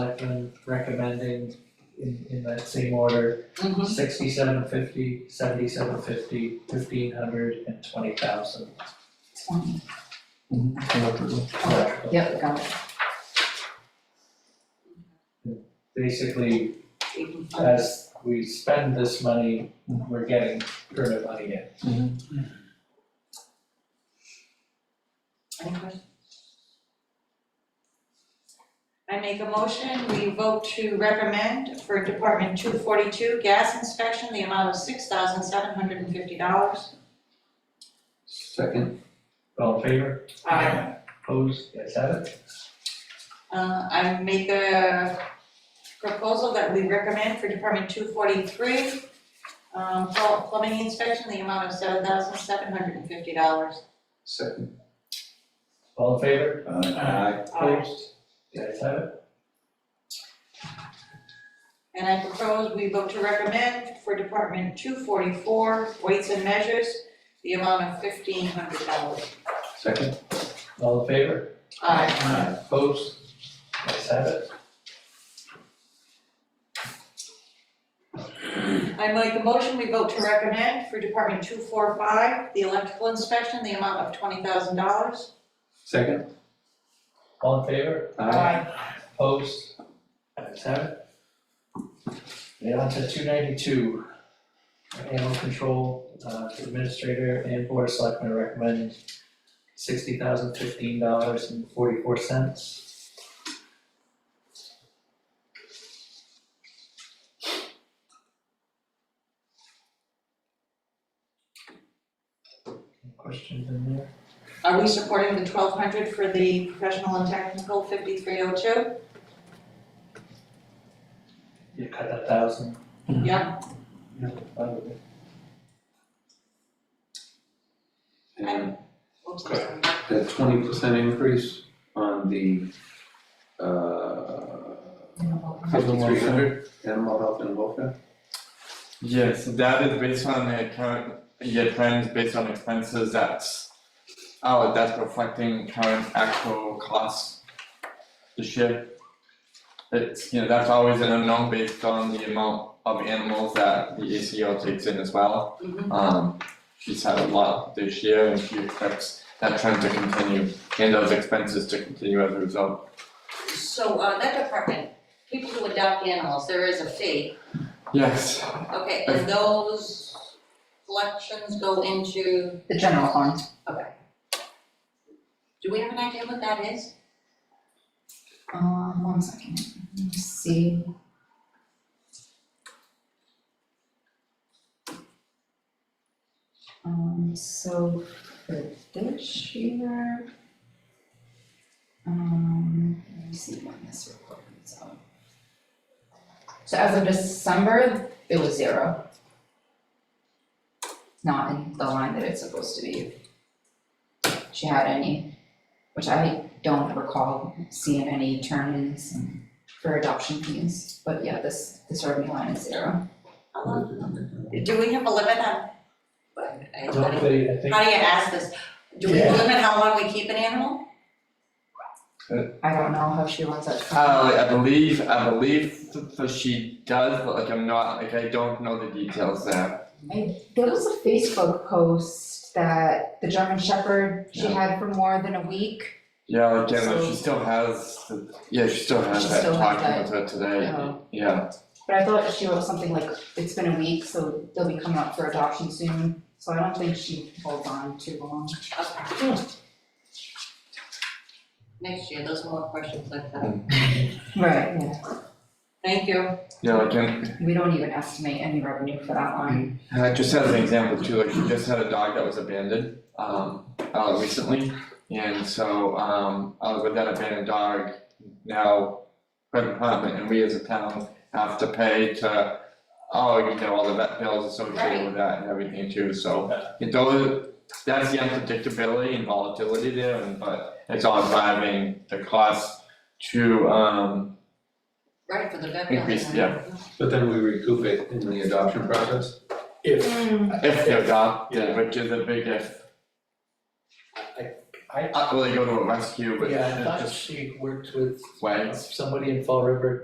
selectmen recommending in, in that same order, Mhm. sixty-seven fifty, seventy-seven fifty, fifteen hundred, and twenty thousand. Twenty. Correct. Yep, got it. Basically, Eighty five. as we spend this money, we're getting current money in. Any questions? I make a motion, we vote to recommend for Department two forty-two gas inspection, the amount of six thousand seven hundred and fifty dollars. Second. All in favor? Uh, Opposed? Yes, have it? I make a proposal that we recommend for Department two forty-three, um, pl- plumbing inspection, the amount of seven thousand seven hundred and fifty dollars. Second. All in favor? Aye. Opposed? Yes, have it? And I propose we vote to recommend for Department two forty-four, weights and measures, the amount of fifteen hundred dollars. Second. All in favor? Aye. Aye. Opposed? Yes, have it? I make a motion, we vote to recommend for Department two four five, the electrical inspection, the amount of twenty thousand dollars. Second. All in favor? Aye. Opposed? Ayes have it. Now on to two ninety-two. Animal control uh, administrator and board of selectmen recommend sixty thousand fifteen dollars and forty-four cents. Questions in there? Are we supporting the twelve hundred for the professional and technical fifty-three oh two? You cut that thousand. Yeah, out of it. And oops, I'm sorry. that twenty percent increase on the, uh, fifty-three hundred, animal health and welfare? Yes, that is based on the current year trends, based on expenses, that's, oh, that's reflecting current actual costs this year. It's, you know, that's always an unknown based on the amount of animals that the ACO takes in as well. Mhm. Um, she's had a lot this year and she expects that trend to continue and those expenses to continue as a result. So, uh, that department, people who adopt animals, there is a fee, Yes, okay, and those collections go into, The general fund. do we have an idea what that is? Um, one second, let me see. Um, so for this year. Um, let me see when this report comes out. So as of December, it was zero. Not in the line that it's supposed to be. She had any, which I don't recall seeing any turn-ins for adoption fees, but yeah, this, this revenue line is zero. How long- Do we have a limit on? what- I- I don't How think- I think do you ask this? Do we have a limit how long we keep an animal? I don't know how she runs that. Uh, I believe, I believe, so she does, but like I'm not, like I don't know the details there. There was a Facebook post that the German Shepherd she had for more than a week. Yeah, like, yeah, no, she still has, the- yeah, she still has She that, still has talking with her today, Oh. yeah, But I thought she wrote something like, it's been a week, so they'll be coming up for adoption soon. So I don't think she holds on too long. Okay. Next year, those are more questions like that. Right. Yeah, Thank you. yeah, like, and, we don't even estimate any revenue for that line. uh, just as an example too, like, she just had a dog that was abandoned, um, uh, recently. And so, um, uh, with that abandoned dog, now, her department and we as a town have to pay to, oh, you know, all the vet bills associated with that and everything too, so. It does, that's the unpredictability and volatility there, and but it's all driving the cost to um Right, for the vet. Increase, yeah. But then we recoup it in the adoption process? If, if they're adopted, Yeah. which is a big if. I, I, Not really go to a rescue, but yeah, I thought just she worked with wags. somebody in Fall River